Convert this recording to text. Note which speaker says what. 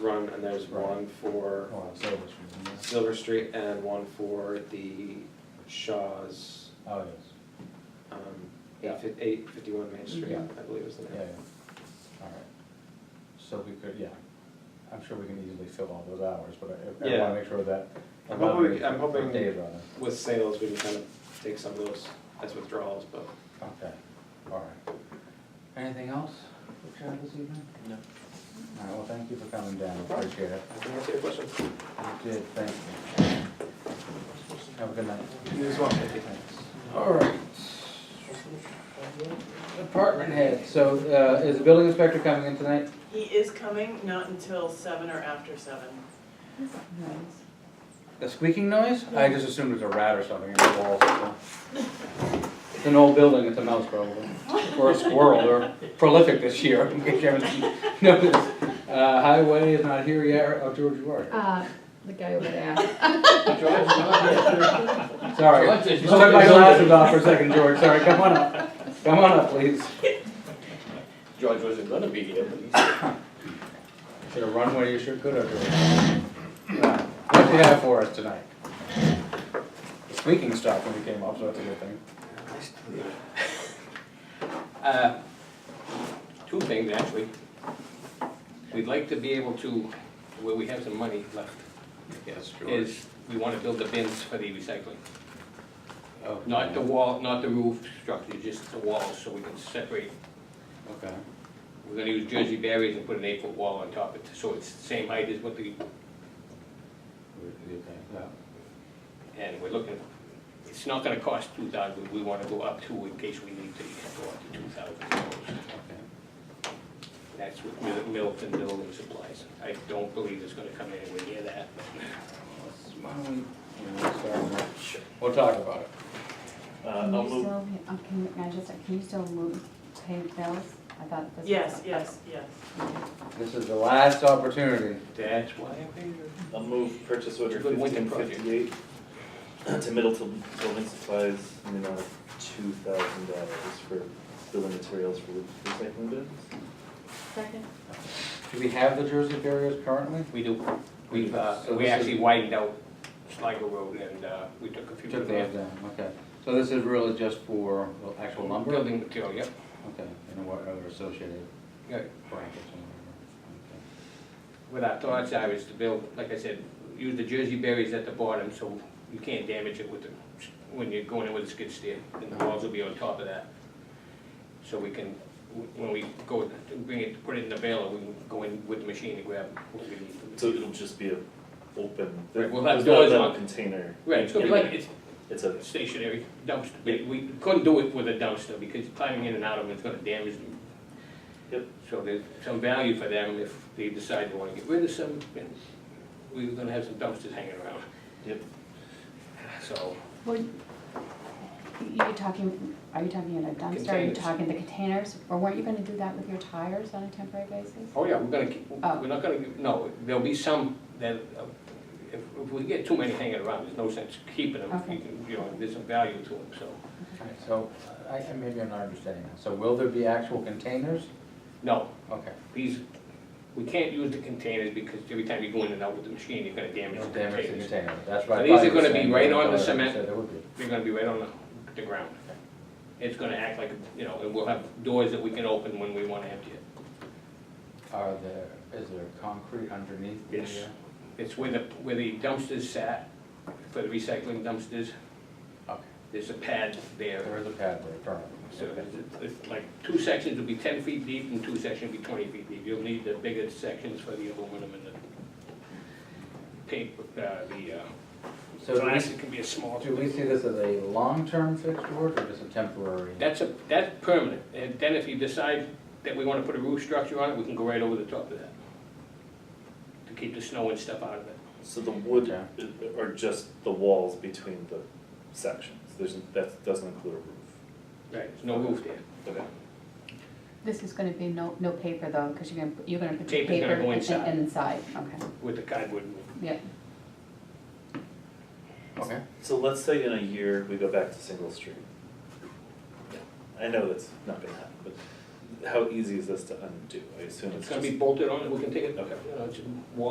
Speaker 1: run, and there's one for
Speaker 2: Oh, so much from there.
Speaker 1: Silver Street and one for the Shaw's,
Speaker 2: Oh, yes,
Speaker 1: um, eight fif- eight fifty-one Main Street, I believe is the name.
Speaker 2: yeah, yeah, all right. So we could, yeah, I'm sure we can easily fill all those hours, but I- I
Speaker 1: Yeah.
Speaker 2: wanna make sure that.
Speaker 1: I'm hoping we- I'm hoping-
Speaker 2: Data on it,
Speaker 1: With sales, we can kind of take some of those as withdrawals, but
Speaker 2: okay, all right. Anything else for Chad this evening?
Speaker 1: No.
Speaker 2: All right, well, thank you for coming down,
Speaker 1: problem.
Speaker 2: appreciate it.
Speaker 1: I think that's your question.
Speaker 2: You did, thank you. Have a good night.
Speaker 1: News one fifty.
Speaker 2: Thanks. All right. Department head, so uh, is the building inspector coming in tonight?
Speaker 3: He is coming, not until seven or after seven.
Speaker 2: A squeaking noise? I just assumed it was a rat or something in the walls. so. It's an old building, it's a mouse probably, or a squirrel, they're prolific this year, in case you haven't noticed. Uh, Highway is not here yet, oh, George, you are.
Speaker 4: Uh, the guy over there.
Speaker 2: Sorry,
Speaker 5: George
Speaker 2: just
Speaker 5: is
Speaker 2: took
Speaker 5: not
Speaker 2: my
Speaker 5: in the
Speaker 2: glasses off for a second, George, sorry, come on up, come on up, please.
Speaker 5: George wasn't gonna be here, but he's.
Speaker 2: Should have run where you should, could have. What do you have for us tonight? The Squeaking stopped when we came up, so that's a good thing.
Speaker 5: Uh, Two things, actually. We'd like to be able to, where we have some money left,
Speaker 2: Yes,
Speaker 5: is we wanna build the bins for the recycling.
Speaker 2: Oh,
Speaker 5: Not the wall, not the roof structure, just the walls, so we can separate.
Speaker 2: Okay,
Speaker 5: We're gonna use Jersey barriers and put an eight-foot wall on top of it, so it's the same height as what the,
Speaker 2: okay, yeah.
Speaker 5: and we're looking, it's not gonna cost two thousand, we wanna go up to in case we need to go up to two thousand dollars.
Speaker 2: okay.
Speaker 5: That's with Mil- Milton Building Supplies. I don't believe it's gonna come anywhere near that.
Speaker 2: Let's- Why don't we, yeah, let's start with- we'll talk about it.
Speaker 6: Uh,
Speaker 4: Can
Speaker 6: I'll
Speaker 4: you
Speaker 6: move,
Speaker 4: still, uh, can, you- can I just, can you still move, pay bills? I thought this was.
Speaker 3: Yes, yes, yes.
Speaker 2: This is the last opportunity.
Speaker 5: That's why I'm here.
Speaker 6: I'll move purchase order
Speaker 5: It's a good winter
Speaker 6: fifteen fifty-eight to Middleton Building Supplies in the amount of two thousand dollars for building materials for recycling bins.
Speaker 3: Second.
Speaker 2: Do we have the Jersey barriers currently?
Speaker 5: We do, we've, uh,
Speaker 2: So
Speaker 5: we
Speaker 2: this is-
Speaker 5: actually widened out Sligo Road and, uh, we took a few
Speaker 2: Took
Speaker 5: of
Speaker 2: those
Speaker 5: the
Speaker 2: down, okay. So this is really just for well, actual lumber?
Speaker 5: building material, yep.
Speaker 2: Okay, and what other associated
Speaker 5: Yeah.
Speaker 2: brackets and whatever.
Speaker 5: What our thoughts are is to build, like I said, use the Jersey berries at the bottom, so you can't damage it with the, when you're going in with a skid steer. And the walls will be on top of that. So we can, when we go, to bring it, put it in the baler, we can go in with the machine and grab what we need.
Speaker 6: So it'll just be a open, there-
Speaker 5: Right, we'll have
Speaker 6: there's not a
Speaker 5: doors
Speaker 6: metal
Speaker 5: on-
Speaker 6: container.
Speaker 5: Right, it's gonna be like, it's
Speaker 6: It's a,
Speaker 5: a stationary dumpster, we, we couldn't do it with a dumpster, because climbing in and out of it's gonna damage them.
Speaker 6: Yep.
Speaker 5: So there's some value for them if they decide they wanna get rid of some, and we're gonna have some dumpsters hanging around.
Speaker 6: Yep.
Speaker 5: So,
Speaker 4: Well, you- you're talking, are you talking about a dumpster, are you
Speaker 5: Containers.
Speaker 4: talking the containers, or weren't you gonna do that with your tires on a temporary basis?
Speaker 5: oh yeah, we're gonna keep,
Speaker 4: Oh.
Speaker 5: we're not gonna, no, there'll be some that, uh, if, if we get too many hanging around, there's no sense keeping them.
Speaker 4: Okay.
Speaker 5: You know, there's some value to them, so,
Speaker 2: Alright, So, I, I- maybe I'm not understanding that. So will there be actual containers?
Speaker 5: no,
Speaker 2: Okay.
Speaker 5: These, we can't use the containers because every time you go in and out with the machine, you're gonna damage
Speaker 2: No
Speaker 5: the
Speaker 2: damage to
Speaker 5: containers.
Speaker 2: container, that's right.
Speaker 5: So these are gonna be right on the cement.
Speaker 2: There would be.
Speaker 5: They're gonna be right on the, the ground. It's gonna act like, you know, and we'll have doors that we can open when we wanna empty it.
Speaker 2: Are there, is there concrete underneath? the,
Speaker 5: Yes.
Speaker 2: uh,
Speaker 5: It's where the, where the dumpsters sat, for the recycling dumpsters,
Speaker 2: Okay,
Speaker 5: there's a pad there.
Speaker 2: there is a pad there, currently.
Speaker 5: So it's- it's like, two sections will be ten feet deep and two sections will be twenty feet deep. You'll need the bigger sections for the aluminum and the paper, uh, the, uh,
Speaker 2: So do
Speaker 5: glass,
Speaker 2: we-
Speaker 5: it can be a small.
Speaker 2: do we see this as a long-term fixed or just a temporary?
Speaker 5: That's a, that's permanent, and then if you decide that we wanna put a roof structure on it, we can go right over the top of that. To keep the snow and stuff out of it.
Speaker 6: so the wood,
Speaker 2: Yeah.
Speaker 6: or just the walls between the sections, there's, that doesn't include a roof.
Speaker 5: Right. There's no roof there.
Speaker 6: Okay.
Speaker 4: This is gonna be no, no paper though, cause you're gonna, you're gonna put your
Speaker 5: Tape is gonna
Speaker 4: paper
Speaker 5: go
Speaker 4: in-
Speaker 5: inside.
Speaker 4: in- inside, okay,
Speaker 5: with the cardboard roof.
Speaker 4: yeah.
Speaker 2: Okay.
Speaker 6: So let's say in a year, we go back to single stream. I know that's not gonna happen, but
Speaker 5: how easy is this to undo? I assume it's just.
Speaker 6: It's gonna be bolted on, and we can take it, you
Speaker 5: Okay.
Speaker 6: know, it's wall